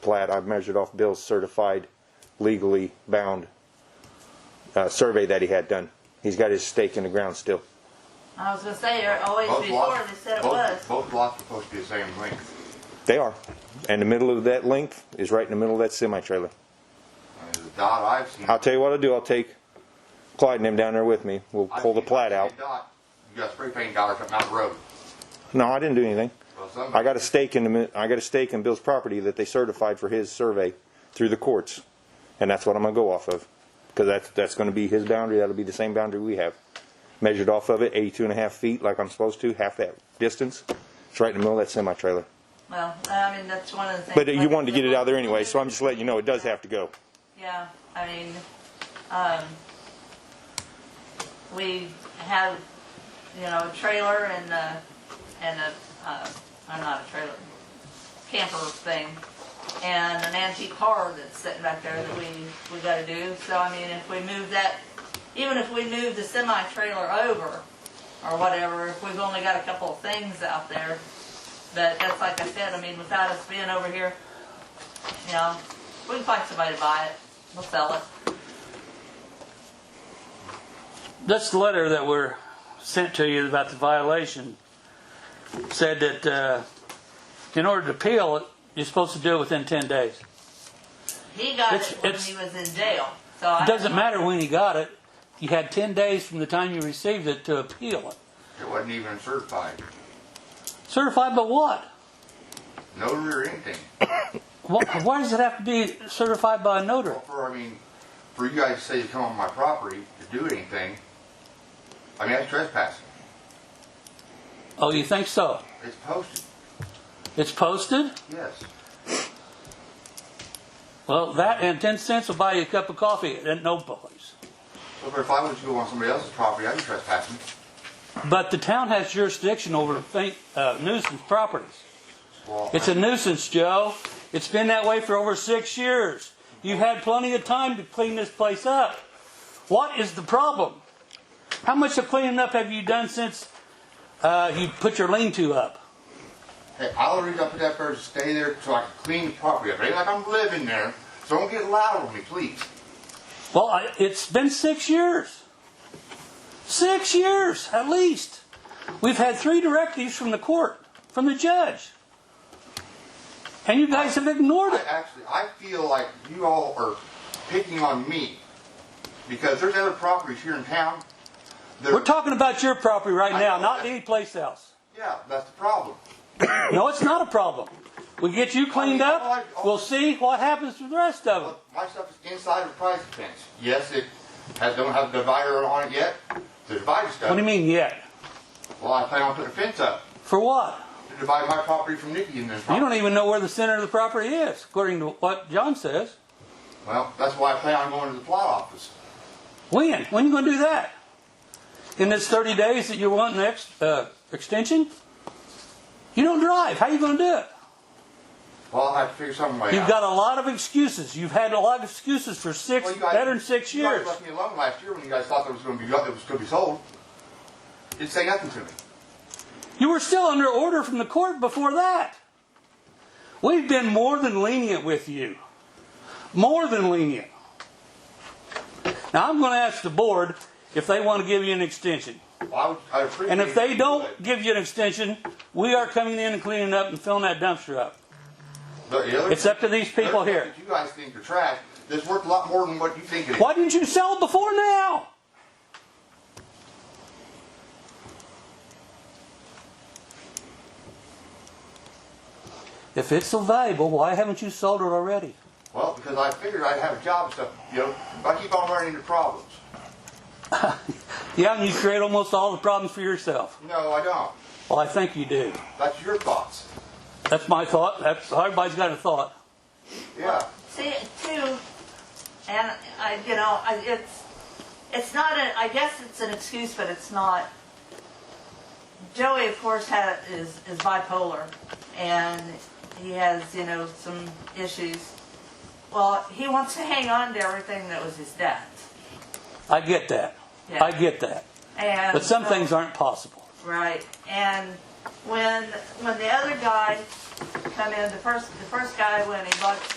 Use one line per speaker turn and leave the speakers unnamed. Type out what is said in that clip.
plat, I've measured off Bill's certified, legally bound uh, survey that he had done. He's got his stake in the ground still.
I was gonna say, or always
Both
before,
lots-
they said it
both-
was.
Both lots are supposed to be the same length.
They are. And the middle of that length is right in the middle of that semi trailer.
And The dot I've seen.
I'll tell you what I'll do. I'll take Clyde and him down there with me. We'll
I've
pull the
seen-
plat
I've
out.
seen a dot. You got a spray paint dot or something out the road.
No, I didn't do anything.
Well, somebody-
I got a stake in the, mi- I got a stake in Bill's property that they certified for his survey through the courts, and that's what I'm gonna go off of, because that's that's gonna be his boundary. That'll be the same boundary we have, measured off of it, 82 and a half feet, like I'm supposed to, half that distance. It's right in the middle of that semi trailer.
Well, I mean, that's one of the things.
But you wanted to get it out there anyway, so I'm just letting you know it does have to go.
Yeah, I mean, um, we have, you know, a trailer and a, and a, uh, uh, not a trailer, camper thing, and an antique car that's sitting back there that we, we gotta do. So I mean, if we move that, even if we move the semi trailer over or whatever, if we've only got a couple of things out there. But that's like I said, I mean, without us being over here, you know, we can find somebody to buy it. We'll sell it.
This letter that were sent to you about the violation said that uh, in order to appeal it, you're supposed to do it within 10 days.
He got
It's-
it when
it's-
he was in jail. So I
It doesn't matter when you got it, you had 10 days from the time you received it to appeal it.
It wasn't even certified.
Certified by what?
Notary or anything.
Why, why does it have to be certified by a notary?
Well, for, I mean, for you guys to say you come on my property to do anything, I mean, that's trespassing.
Oh, you think so?
It's posted,
It's posted?
yes.
Well, that and 10 cents will buy you a cup of coffee at no place.
Well, But if I was to go on somebody else's property, I'd be trespassing.
But the town has jurisdiction over think, uh, nuisance properties.
Well,
It's a nuisance, Joe. It's been that way for over six years. You've had plenty of time to clean this place up. What is the problem? How much of cleaning up have you done since uh, you put your lean-to up?
Hey, I'll reach up to that person, stay there so I can clean the property up. It ain't like I'm living there. So don't get loud on me, please.
Well, I, it's been six years. Six years, at least. We've had three directives from the court, from the judge. And you guys have ignored
I
it.
actually, I feel like you all are picking on me because there's other properties here in town. that-
We're talking about your property right
I
now,
know
not
that.
any place else.
Yeah, that's the problem.
No, it's not a problem. We get you cleaned up, we'll see what happens to the rest of it.
Look, my stuff is inside of the price fence. Yes, it has, don't have a divider on it yet. The divider's
What do you
done.
mean yet?
Well, I plan on putting a fence up
For what?
to divide my property from Nikki and then.
You don't even know where the center of the property is, according to what John says.
Well, that's why I plan on going to the plot office.
When? When you gonna do that? In this thirty days that you want an ex, uh, extension? You don't drive, how you gonna do it?
Well, I have to figure some way out.
You've got a lot of excuses, you've had a lot of excuses for six,
Well, you guys-
better than six
you guys
years.
left me alone last year when you guys thought it was going to be it was going to be sold. Didn't say nothing to me.
You were still under order from the court before that. We've been more than lenient with you. More than lenient. Now, I'm going to ask the board if they want to give you an extension.
Well, I would, I appreciate.
And if they
it,
don't give you an extension, we are coming in and cleaning up and filling that dumpster up.
but the other-
It's up to these people
the other
here.
stuff that You guys think are trash. That's worth a lot more than what you think it is.
Why didn't you sell before now? If it's so valuable, why haven't you sold it already?
Well, because I figured I'd have a job and stuff. You know, but I keep on running into problems.
Yeah, and you create almost all the problems for yourself.
No, I don't.
Well, I think you do.
That's your thoughts.
That's my thought. That's everybody's got a thought.
Yeah.
See, too, and I, you know, I, it's, it's not a, I guess it's an excuse, but it's not. Joey, of course, had, is, is bipolar, and he has, you know, some issues. Well, he wants to hang on to everything that was his dad's.
I get that.
Yeah.
I get that.
And
But some
so-
things aren't possible.
Right, and when when the other guy come in, the first the first guy when he bought